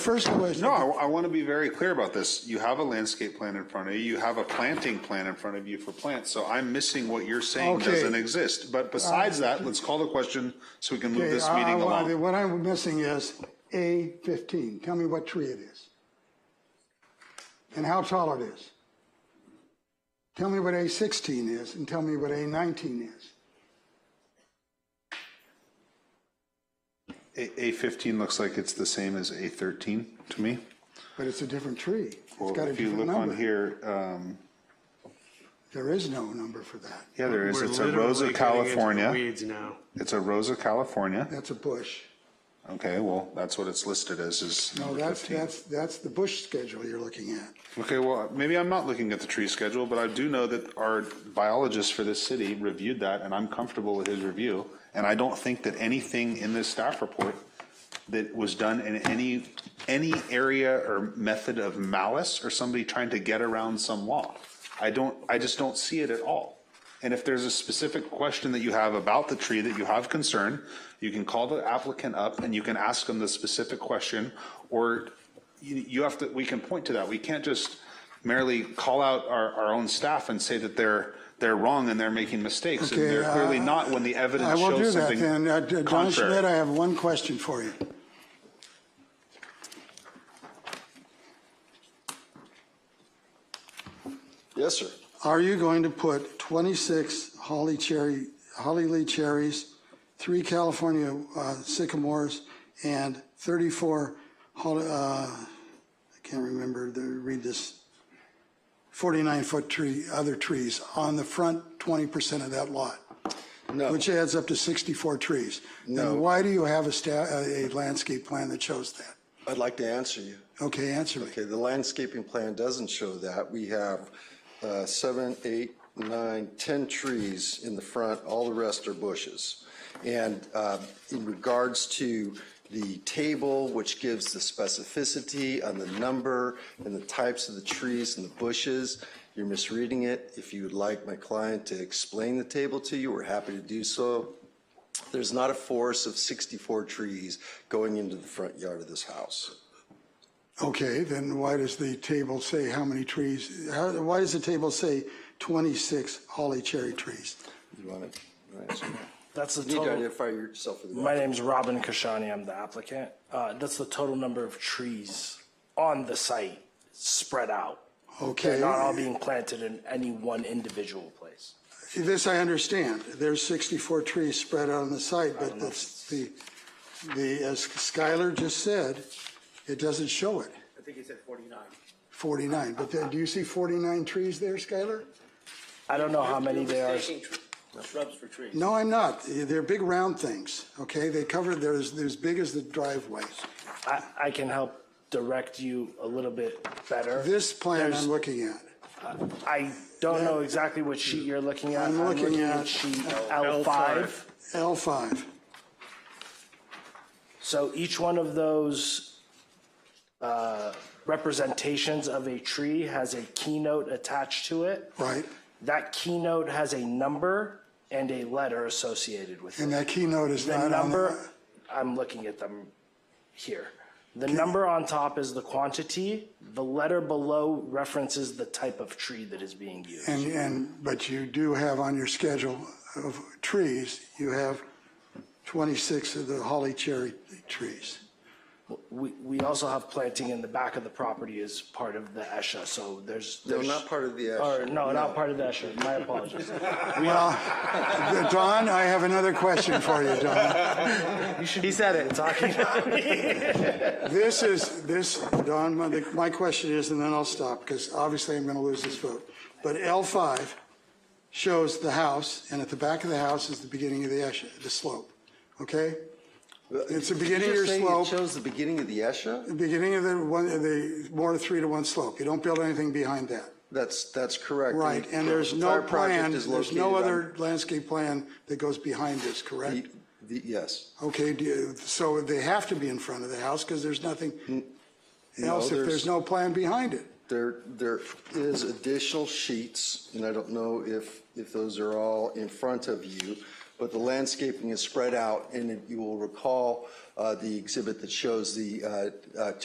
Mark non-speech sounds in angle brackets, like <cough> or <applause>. First question. No, I, I want to be very clear about this. You have a landscape plan in front of you, you have a planting plan in front of you for plants, so I'm missing what you're saying Okay. Uh, doesn't exist. But besides that, let's call the question so we can move Okay, this I- I meeting wanted- along. What I'm missing is A15. Tell me what tree it is. And how tall it is. Tell me what A16 is and tell me what A19 is. A, A fifteen looks like it's the same as A thirteen to me. But it's a different tree. It's Well, got a if you different look on number. here, um, There is no number for that. yeah, there is, We're it's a Rosa literally getting into the California. Weeds now. It's a Rosa California. That's a bush. Okay, well, that's what it's listed as, is No, number that's, fifteen. that's, that's the bush schedule you're looking at. Okay, well, maybe I'm not looking at the tree schedule, but I do know that our biologist for this city reviewed that, and I'm comfortable with his review. And I don't think that anything in this staff report that was done in any, any area or method of malice or somebody trying to get around some law. I don't, I just don't see it at all. And if there's a specific question that you have about the tree that you have concern, you can call the applicant up and you can ask them the specific question, or you, you have to, we can point to that. We can't just merely call out our, our own staff and say that they're, they're wrong and they're making mistakes. And Okay, they're clearly uh, not when the I evidence will do shows that something then. Uh, d- Don Schmidt, I contrary. have one question for you. Yes, sir. Are you going to put 26 holly cherry, holly lee cherries, three California uh, sycamores, and 34 holly, uh, I can't remember, the, read this, 49-foot tree, other trees on the front 20% of that lot, No, which adds up to 64 trees? No. Then why do you have a sta, a a landscape plan that shows that? I'd like to answer you. Okay, answer me. Okay, the landscaping plan doesn't show that. We have uh, seven, eight, nine, 10 trees in the front, all the rest are bushes. And uh, in regards to the table, which gives the specificity on the number and the types of the trees and the bushes, you're misreading it. If you would like my client to explain the table to you, we're happy to do so. There's not a forest of 64 trees going into the front yard of this house. Okay, then why does the table say how many trees, how, why does the table say 26 holly cherry trees? You want to answer that? That's the You need to total. identify yourself for the My record. name's Robin Kashani. I'm the applicant. Uh, that's the total number of trees on the site spread out. They're Okay, not all being planted in any one individual place. this I understand. There's 64 trees spread out on the site, but that's the, the, as Skylar just said, it doesn't show it, I think he said 49. 49. But then, do you see 49 trees there, Skylar? I don't know how many there are. Taking tr- Shrubs for trees. No, I'm not. They're big round things, okay? They cover, they're as, they're as big as the driveway. I, I can help direct you a little bit better. This plan I'm There's- looking at. I don't know exactly what sheet you're looking at. I'm looking at sheet L5. L5. So each one of those uh, representations of a tree has a keynote attached to it. Right. That keynote has a number and a letter associated with And it. that keynote is The not on number, the, I'm looking at them here. The number on top is the quantity. The letter below references the type of tree that is being used. and, and, but you do have on your schedule of trees, you have 26 of the holly cherry trees. We, we also have planting in the back of the property as part of the ESHA, so there's. No, there's- not part of the Or, ESHA. no, not part of the ESHA. My apologies. Well, <laughs> Don, I have another question for you, Don. He said it. Talking <laughs> This is, this, Don, my, the- my question is, and then I'll stop, because obviously I'm going to lose this vote. But L5 shows the house, and at the back of the house is the beginning of the, esche- the slope, okay? It's the beginning of your Did you just say slope. You chose the beginning of the ESHA? beginning of the one, the more three to one slope. You don't build anything behind that. That's, that's correct. Right, The- and there's the no entire project plan, is there's no located other landscape plan that goes behind this, on correct? the- the- Yes. Okay, do you- so they have to be in front of the house because there's nothing else if there's- there's no plan behind it. There, there is additional sheets, and I don't know if, if those are all in front of you, but the landscaping is spread out, and you will recall uh, the exhibit that shows the uh, uh,